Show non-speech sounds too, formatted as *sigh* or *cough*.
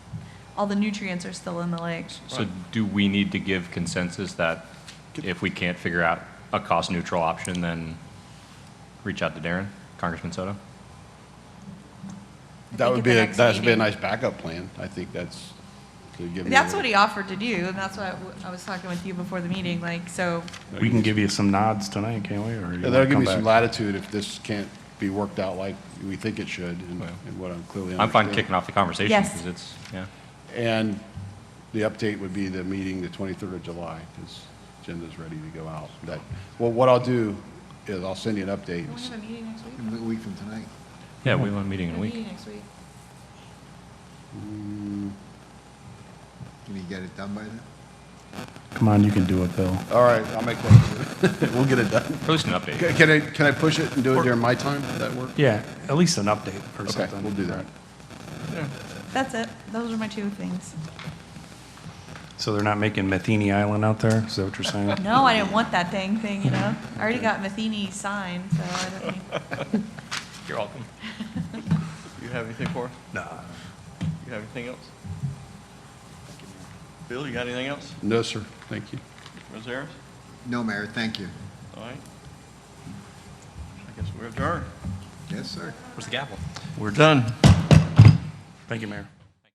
all the nutrients are still in the lake. So do we need to give consensus that if we can't figure out a cost-neutral option, then reach out to Darren, Congressman Soto? think That would at be, the a next that should be a meeting. nice backup plan. I think that's, could give me. That's a- what he offered to do, and that's what I w- I was talking with you before the meeting, like, so, We can give you some nods tonight, can't we? Or you Yeah, wanna That'll give come me some back? latitude if this can't be worked out like we think it should and Well. and what I'm clearly. I'm fine understanding. kicking off the conversation. Yes. Because it's, yeah. And the update would be the meeting, the 23rd of July, because agenda's ready to go out. That, well, what I'll do is I'll send you an update. we have a meeting next week? A week from tonight. Yeah, we want a meeting We have in a a week. meeting next week. Can you get it done by then? Come on, you can do it, Bill. All right, I'll make that. *laughs* We'll get it done. At least an update. Can I, can I push it and do it during my time? Would that work? Yeah, at least an update or Okay, something. we'll do that. Right. That's it, those are my two things. So they're not making Matheny Island out there? Is that what you're saying? No, I didn't want that dang thing, you know? I already got Matheny signed, so I don't need. You're welcome. You have anything for us? No. You have anything else? Bill, you got anything else? No, sir. Thank you. Rosaris? No, Mayor, thank you. All right. I guess we're adjourned. Yes, sir. Where's the gavel? We're done. Thank you, Mayor.